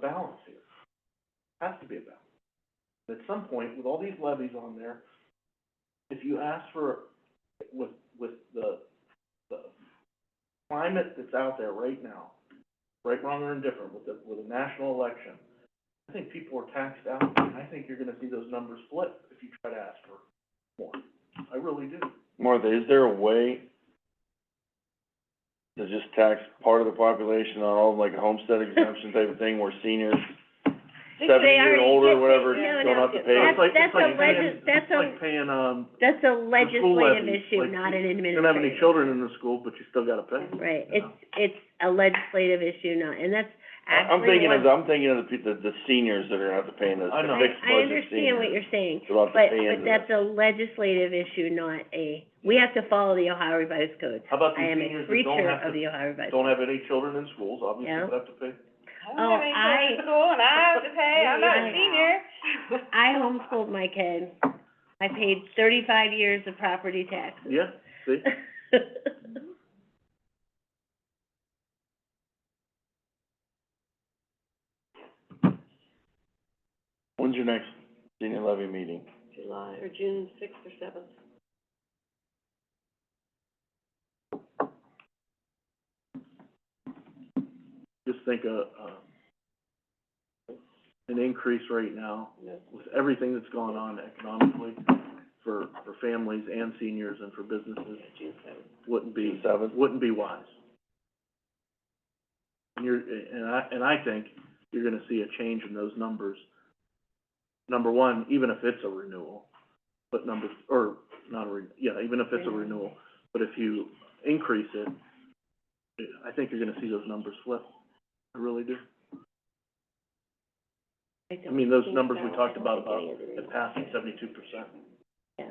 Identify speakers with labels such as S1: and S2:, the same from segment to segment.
S1: balance here. Has to be a balance. At some point, with all these levies on there, if you ask for, with, with the, the climate that's out there right now, right, wrong, or indifferent, with the, with a national election, I think people are taxed out, and I think you're gonna see those numbers flip if you try to ask for more. I really do.
S2: Martha, is there a way to just tax part of the population on all, like, a homestead exemption type of thing, where seniors, seventy year and older, or whatever,
S3: no,
S2: don't
S3: no,
S2: have to
S3: it's
S2: pay?
S3: not-
S1: It's like- it's
S3: that's a
S1: like paying-
S3: legis- that's a-
S1: It's like paying, um,
S3: That's a
S1: school
S3: legislative
S1: levies,
S3: issue,
S1: like,
S3: not an administrative.
S1: you don't have any children in the school, but you still gotta pay.
S3: Right,
S1: you
S3: it's,
S1: know?
S3: it's a legislative issue, not, and that's
S2: I- I'm
S3: actually
S2: thinking of,
S3: what-
S2: I'm thinking of the people, the seniors that are gonna have to pay in this,
S1: I
S2: the
S1: know.
S2: fixed
S3: I, I
S2: budget
S3: understand what
S2: seniors.
S3: you're saying,
S2: They'll have to
S3: but,
S2: pay into
S3: but that's a legislative issue, not a, we have to follow the Ohio Revised Code.
S1: How about
S3: I
S1: these seniors
S3: am a
S1: that don't
S3: creature
S1: have
S3: of
S1: to,
S3: the Ohio Revised.
S1: don't have any children in schools, obviously,
S3: Yeah.
S1: but have to pay?
S3: Oh, I-
S4: I'm in school and I have to pay, I'm not
S3: Yeah.
S4: a senior.
S3: I homeschooled my kid, I paid thirty-five years of property taxes.
S1: Yeah, see?
S2: When's your next senior levy meeting?
S4: July, or June sixth or seventh.
S1: Just think of, uh, an increase right now with everything that's gone on economically for, for families and seniors and for businesses wouldn't be,
S2: June seventh?
S1: wouldn't be wise. And you're, and I, and I think you're gonna see a change in those numbers. Number one, even if it's a renewal, but number, or not a re, yeah, even if it's a renewal, but if you increase it, I think you're gonna see those numbers flip. I really do. I mean, those numbers we talked about, about It passed at seventy-two percent.
S3: Yeah,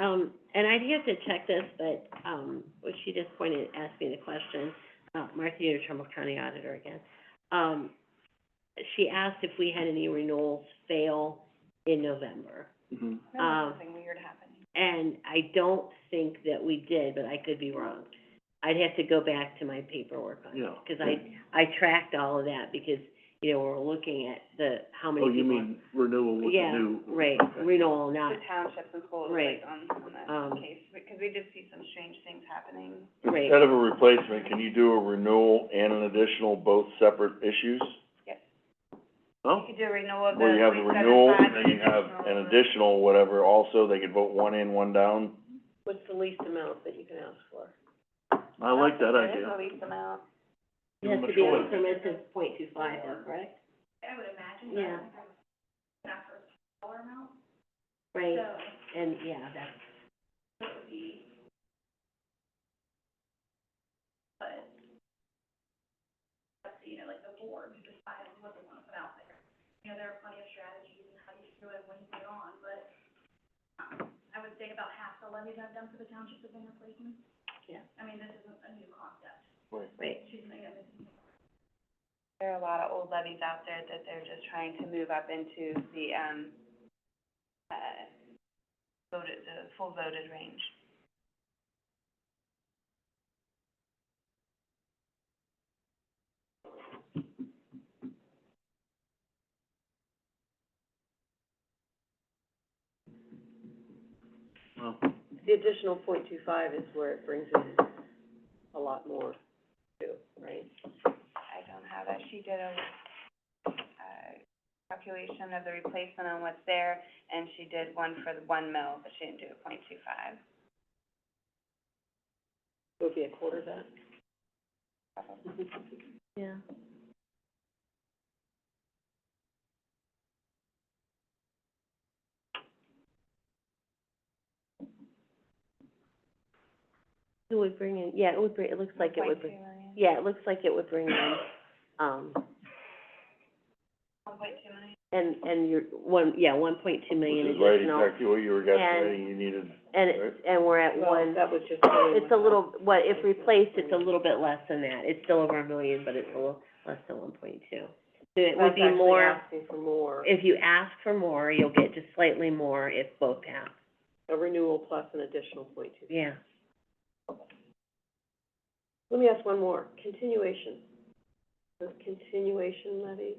S3: um, and I'd have to check this, but, um, what she just pointed, asked me the question, uh, Martha, you Trumbull County Auditor again. Um, she asked if we had any renewals fail in November,
S1: Mm-hmm.
S3: Um,
S4: something weird happened.
S3: and I don't think that we did, but I could be wrong. I'd have to go back to my paperwork on it,
S1: Yeah.
S3: because I, I tracked all of that, because, you know, we're looking at the, how many
S1: Oh, you
S3: people-
S1: mean renewal with the
S3: Yeah,
S1: new?
S3: right,
S1: okay.
S3: renewal, not,
S4: The townships and schools,
S3: Right.
S4: like, on, on
S3: Um,
S4: that case, because we did see some strange things happening.
S3: Right.
S2: Instead of a replacement, can you do a renewal and an additional, both separate issues?
S1: Oh,
S4: You could do a renewal of the
S2: Where you have a
S4: three seven
S2: renewal,
S4: five
S2: and then you have
S4: additional
S2: an
S4: or-
S2: additional, whatever, also, they could vote one in, one down.
S3: What's the least amount that you can ask for?
S1: I like that
S4: There is
S1: idea.
S4: a lease amount.
S3: It
S1: Give
S3: has
S1: them a
S3: to be
S1: choice.
S3: a permit of point two five, though, correct? I would imagine, so. Yeah. Right, and, yeah, that's. Right.
S4: There are a lot of old levies out there that they're just trying to move up into the, um, uh, voted, the full voted range.
S1: Well,
S5: The additional point two five is where it brings in a lot more too, right?
S4: I don't have that. She did a, uh, calculation of the replacement on what's there, and she did one for the one mil, but she didn't do a point two five,
S5: It would be a quarter of that.
S4: probably.
S3: Yeah. It would bring in, yeah, it would bring, it looks like it would bring, yeah, it looks like it would bring in, um,
S4: One point two million.
S3: and, and your, one, yeah, one point two
S2: Which
S3: million
S2: is
S3: additional.
S2: right, exactly what you were guessing, you needed,
S3: And it's, and we're at
S5: Well,
S3: one,
S5: that was just.
S3: it's a little, what, if replaced, it's a little bit less than that. It's still over a million, but it's a little less than one point two. So it would be more,
S5: That's actually asking for more,
S3: if you ask for more, you'll get just slightly more if both pass,
S5: a renewal plus an additional point two.
S3: yeah.
S5: Let me ask one more, continuation. Does continuation levy